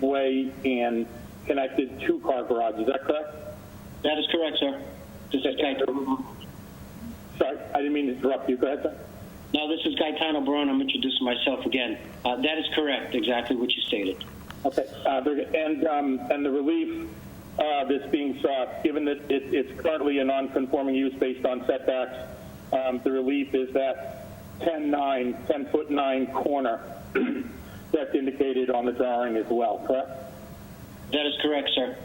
way and connected two-car garage, is that correct? That is correct, sir. This is Gaetano. Sorry, I didn't mean to interrupt you, go ahead, sir. No, this is Gaetano Barone. I'm introducing myself again. Uh, that is correct, exactly what you stated. Okay, uh, there- and, um, and the relief uh, that's being sought, given that it, it's currently a non-conforming use based on setbacks, um, the relief is that 10-9, 10-foot 9 corner that's indicated on the drawing as well, correct? That is correct, sir.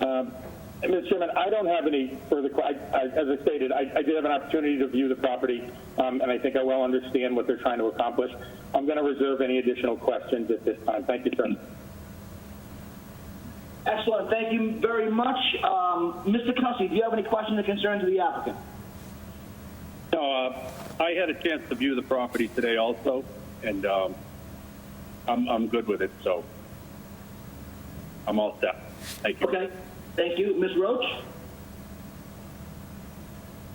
And, Mr. Um, Chairman, I don't have any further, que- I- I- as I stated, I I did have an opportunity to view the property, um, and I think I well understand what they're trying to accomplish. I'm going to reserve any additional questions at this time. Thank you, sir. Excellent. Thank you very much. Um, Mr. Cussy, do you have any questions or concerns of the applicant? No, uh, I had a chance to view the property today also, and um, I'm, I'm good with it, so I'm all set. Thank you. Okay. Thank you. Ms. Roach?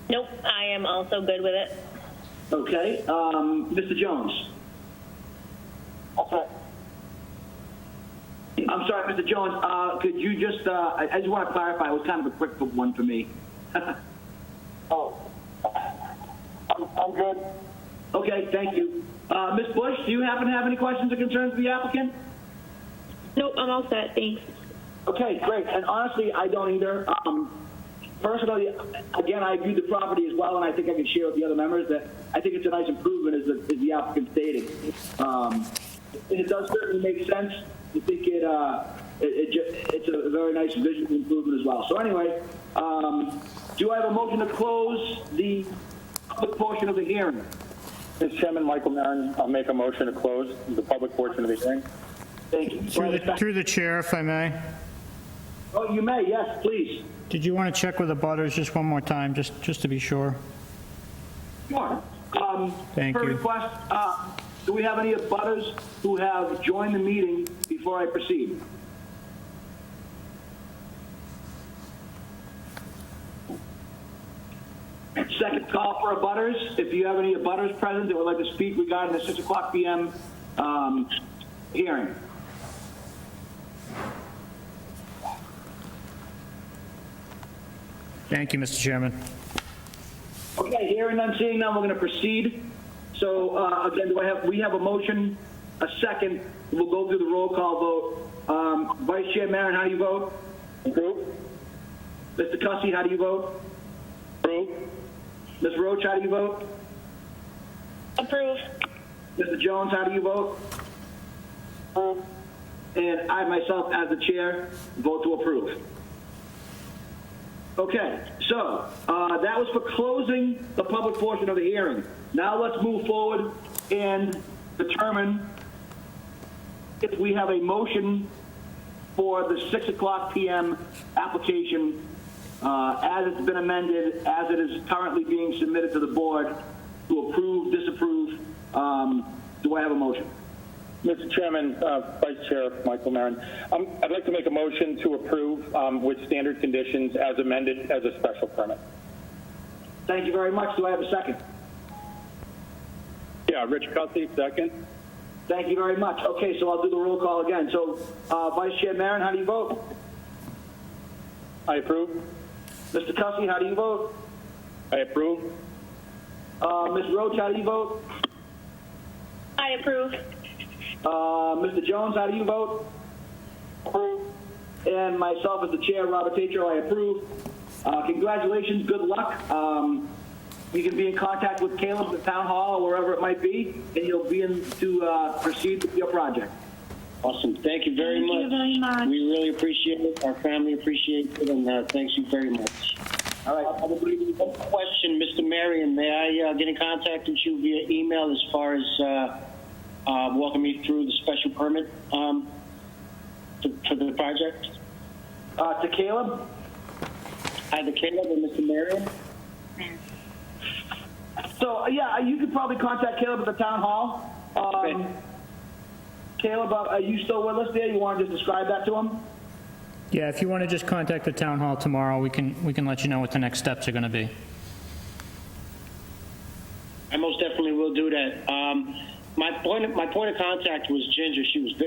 Nope, I am also good with it. Okay. Um, Mr. Jones? I'm sorry, Mr. Jones, uh, could you just, uh, I I just want to clarify, it was kind of a quick one for me. Oh, I'm, I'm good. Okay, thank you. Uh, Ms. Bush, do you happen to have any questions or concerns of the applicant? Nope, I'm all set, thanks. Okay, great. And honestly, I don't either. Um, personally, again, I view the property as well, and I think I can share with the other members that I think it's a nice improvement, as the, as the applicant stated. Um, and it does certainly make sense. I think it, uh, it, it ju- it's a very nice visual improvement as well. So anyway, um, do I have a motion to close the public portion of the hearing? Mr. Chairman, Michael Maron, I'll make a motion to close the public portion of the hearing. Thank you. Through the, through the chair, if I may. oh, you may. Yes, please. Did you want to check with the butters just one more time, just, just to be sure? Sure. Um, Thank Per you. request, uh, do we have any abutters who have joined the meeting before I proceed? Second call for abutters. If you have any abutters present that would like to speak regarding the 6 o'clock PM um, hearing. Thank you, Mr. Chairman. Okay, hearing none, seeing none, we're going to proceed. So uh, again, do I have, we have a motion, a second. We'll go through the roll call vote. Um, Vice Chair Maron, how do you vote? Approve? Mr. Cussy, how do you vote? Approve? Ms. Roach, how do you vote? Approve. Mr. Jones, how do you vote? Uh, And I myself, as the chair, vote to approve. Okay, so uh, that was for closing the public portion of the hearing. Now let's move forward and determine if we have a motion for the 6 o'clock PM application uh, as it's been amended, as it is currently being submitted to the board to approve, disapprove. Um, Do I have a motion? Mr. Chairman, uh, Vice Chair Michael Maron, um, I'd like to make a motion to approve um, with standard conditions as amended as a special permit. Thank you very much. Do I have a second? Yeah, Rich Cussy, second. Thank you very much. Okay, so I'll do the roll call again. So uh, Vice Chair Maron, how do you vote? I approve? Mr. Cussy, how do you vote? I approve. Uh, Ms. Roach, how do you vote? I approve. Uh, Mr. Jones, how do you vote? Approve. And myself as the chair, Robert Tatro, I approve. Uh, congratulations, good luck. Um, you can be in contact with Caleb at Town Hall or wherever it might be, and you'll be in to uh, proceed with your project. Awesome. Thank you very much. We really appreciate it. Our family appreciates it, and uh, thanks you very much. All right. Uh, One question, Mr. Marion, may I uh, get in contact with you via email as far as uh, uh, walking me through the special permit um, for, for the project? Uh, to Caleb? Either Caleb or Mr. Marion? So yeah, you could probably contact Caleb at the town hall. Um, Okay. Caleb, uh, are you still with us there? You want to just describe that to him? Yeah, if you want to just contact the town hall tomorrow, we can, we can let you know what the next steps are going to be. I most definitely will do that. Um, my point, of, my point of contact was Ginger. She was